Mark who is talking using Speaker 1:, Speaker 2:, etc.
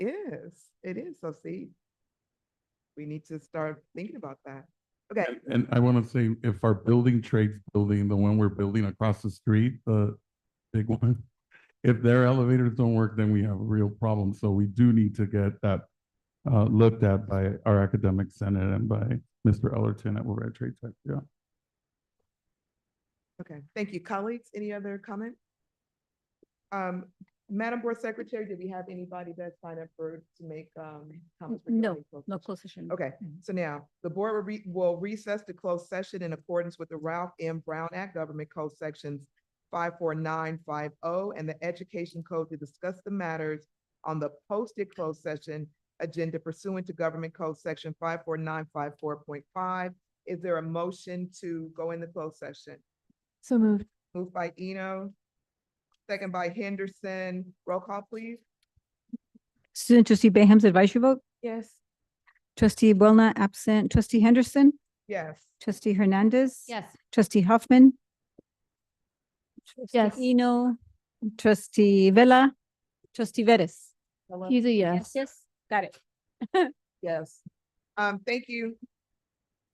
Speaker 1: It is, so see. We need to start thinking about that. Okay,
Speaker 2: And- And I want to say, if our building trades building, the one we're building across the street, the big one, if their elevators don't work, then we have a real problem. So we do need to get that uh, looked at by our academic senate and by Mr. Ellerton at World Red Trade Tech. Yeah.
Speaker 1: okay, thank you. Colleagues, any other comment? Um, Madam Board Secretary, did we have anybody that signed up for, to make, um, comments?
Speaker 3: N- no,
Speaker 1: regarding closed
Speaker 3: No
Speaker 1: session?
Speaker 3: closed session.
Speaker 1: Okay, so now, the board will re- will recess to closed session in accordance with the Ralph M. Brown Act Government Code Sections five four nine five oh and the Education Code to discuss the matters on the posted closed session agenda pursuant to Government Code Section five four nine five four point five. Is there a motion to go in the closed session?
Speaker 3: So moved.
Speaker 1: Moved by Eno, second by Henderson. Roll call, please.
Speaker 3: Student trustee Bayham's advisory vote,
Speaker 1: Yes.
Speaker 3: trustee Boulna absent, trustee Henderson,
Speaker 1: Yes.
Speaker 3: trustee Hernandez.
Speaker 4: Yes.
Speaker 3: Trustee Hoffman. Trustee
Speaker 4: Yes.
Speaker 3: Eno, trustee Vella, trustee Vettis.
Speaker 4: He's a yes. Yes. Got it.
Speaker 1: Yes. Um, thank you.